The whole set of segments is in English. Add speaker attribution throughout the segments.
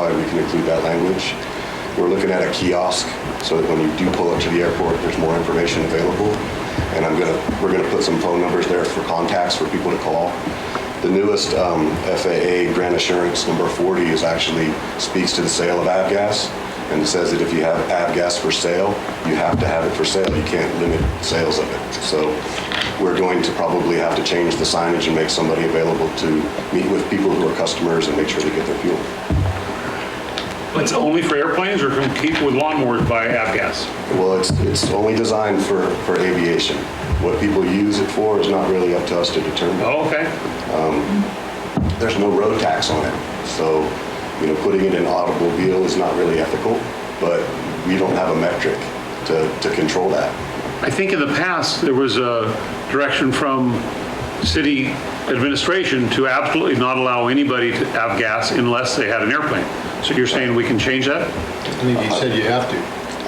Speaker 1: why we've included that language. We're looking at a kiosk, so that when you do pull up to the airport, there's more information available. And I'm gonna, we're gonna put some phone numbers there for contacts for people to call. The newest um, FAA grant assurance number 40 is actually, speaks to the sale of avgas and it says that if you have avgas for sale, you have to have it for sale. You can't limit sales of it. So we're going to probably have to change the signage and make somebody available to meet with people who are customers and make sure they get their fuel.
Speaker 2: It's only for airplanes or can people with lawnmowers buy avgas?
Speaker 1: Well, it's, it's only designed for, for aviation. What people use it for is not really up to us to determine.
Speaker 2: Oh, okay.
Speaker 1: there's no road tax on it. So, you know, putting it in automobile is not really ethical, but we don't have a metric to, to control that.
Speaker 2: I think in the past, there was a direction from city administration to absolutely not allow anybody to have gas unless they had an airplane. So you're saying we can change that?
Speaker 3: I think you said you have to.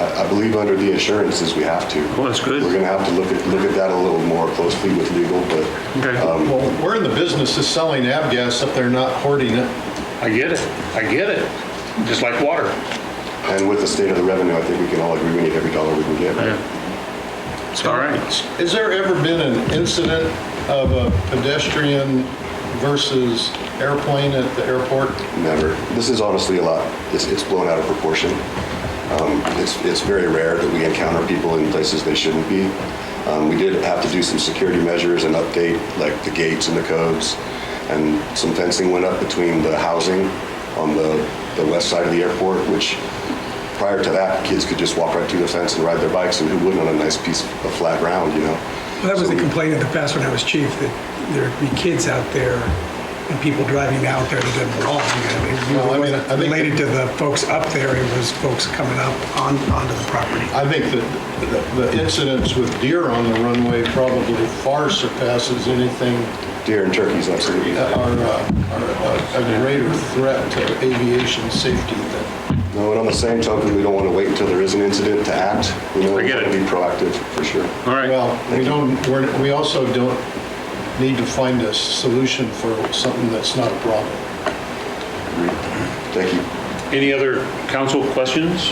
Speaker 1: I I believe under the assurances, we have to.
Speaker 2: Well, that's good.
Speaker 1: We're gonna have to look at, look at that a little more closely with legal, but
Speaker 2: Okay.
Speaker 3: Well, we're in the business of selling avgas if they're not hoarding it.
Speaker 2: I get it. I get it. Just like water.
Speaker 1: and with the state of the revenue, I think we can all agree we need every dollar we can get. right?
Speaker 2: All right.
Speaker 3: Has there ever been an incident of a pedestrian versus airplane at the airport?
Speaker 1: Never. This is honestly a lot, it's, it's blown out of proportion. Um, It's, it's very rare that we encounter people in places they shouldn't be. Um, We did have to do some security measures and update, like the gates and the codes, and some fencing went up between the housing on the, the west side of the airport, which prior to that, kids could just walk right through the fence and ride their bikes, and who wouldn't on a nice piece of flat ground, you know?
Speaker 4: Well, That was a complaint in the past when I was chief, that there'd be kids out there and people driving out there that didn't belong. you
Speaker 3: Well, I
Speaker 4: know, It
Speaker 3: mean, I
Speaker 4: wasn't
Speaker 3: think-
Speaker 4: related to the folks up there, it was folks coming up on, onto the property.
Speaker 3: I think that the- the incidents with deer on the runway probably far surpasses anything
Speaker 1: Deer and turkeys, absolutely.
Speaker 3: that are uh, are a greater threat to aviation safety than...
Speaker 1: No, and on the same token, we don't want to wait until there is an incident to act. We know
Speaker 2: I
Speaker 1: we
Speaker 2: get
Speaker 1: want to
Speaker 2: it.
Speaker 1: be proactive, for sure.
Speaker 2: All right.
Speaker 3: Well, we don't, we're- we also don't need to find a solution for something that's not a problem.
Speaker 1: Thank you.
Speaker 2: Any other council questions?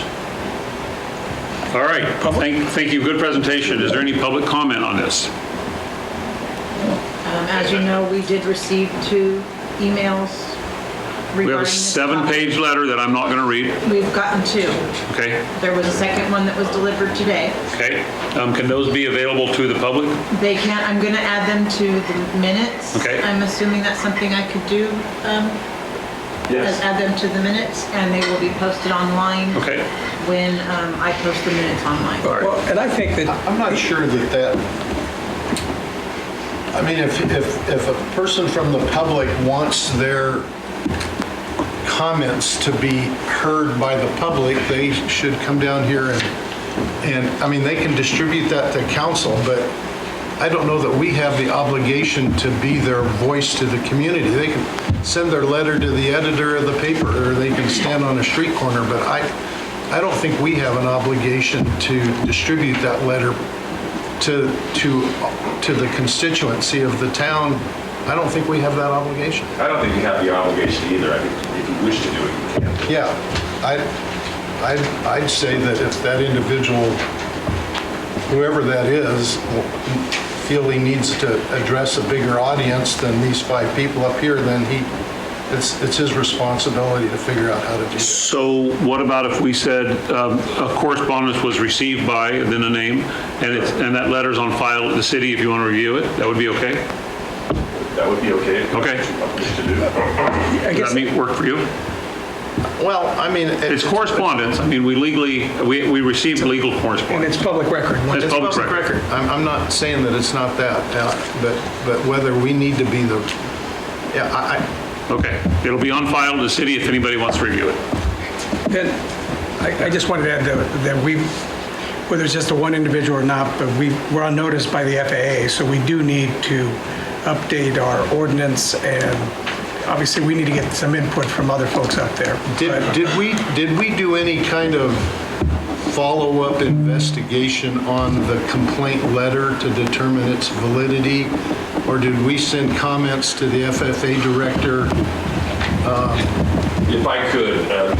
Speaker 2: All right, thank, thank you, good presentation. Is there any public comment on this?
Speaker 5: Um, As you know, we did receive two emails regarding...
Speaker 2: We have a
Speaker 5: this
Speaker 2: seven-page
Speaker 5: topic.
Speaker 2: letter that I'm not going to read,
Speaker 5: We've gotten two.
Speaker 2: okay?
Speaker 5: There was a second one that was delivered today.
Speaker 2: Okay, um, can those be available to the public?
Speaker 5: They can't, I'm going to add them to the minutes.
Speaker 2: Okay.
Speaker 5: I'm assuming that's something I could do, um, is add them to the minutes, and they will be posted online.
Speaker 2: Okay.
Speaker 5: When um, I post the minutes online.
Speaker 4: Well, and I think that
Speaker 3: I'm not sure that that, I mean, if, if, if a person from the public wants their comments to be heard by the public, they should come down here and, and, I mean, they can distribute that to council, but I don't know that we have the obligation to be their voice to the community. They can send their letter to the editor of the paper, or they can stand on a street corner, but I, I don't think we have an obligation to distribute that letter to, to, to the constituency of the town. I don't think we have that obligation.
Speaker 6: I don't think you have the obligation either. I think if you wish to do it, you can.
Speaker 3: Yeah, I, I'd, I'd say that if that individual, whoever that is, feel he needs to address a bigger audience than these five people up here, then he, it's, it's his responsibility to figure out how to do that.
Speaker 2: So what about if we said um, a correspondence was received by, then a name, and it's, and that letter's on file at the city if you want to review it? That would be okay?
Speaker 6: That would be okay.
Speaker 2: Okay.
Speaker 6: Wish to do that.
Speaker 4: I
Speaker 2: Does
Speaker 4: guess
Speaker 2: that mean work for you?
Speaker 3: Well, I mean.
Speaker 2: It's correspondence, I mean, we legally, we, we received legal
Speaker 4: and
Speaker 2: correspondence.
Speaker 4: it's public record.
Speaker 2: It's
Speaker 3: It's
Speaker 2: public
Speaker 3: public
Speaker 2: record.
Speaker 3: record. I'm, I'm not saying that it's not that, uh, but, but whether we need to be the, yeah, I, I,
Speaker 2: Okay, it'll be on file at the city if anybody wants to review it.
Speaker 4: Then, I, I just wanted to add that, that we, whether it's just a one individual or not, but we, we're on notice by the FAA, so we do need to update our ordinance, and obviously, we need to get some input from other folks out there.
Speaker 3: Did,
Speaker 4: But-
Speaker 3: did we, did we do any kind of follow-up investigation on the complaint letter to determine its validity? Or did we send comments to the FFA director
Speaker 6: If I could, uh,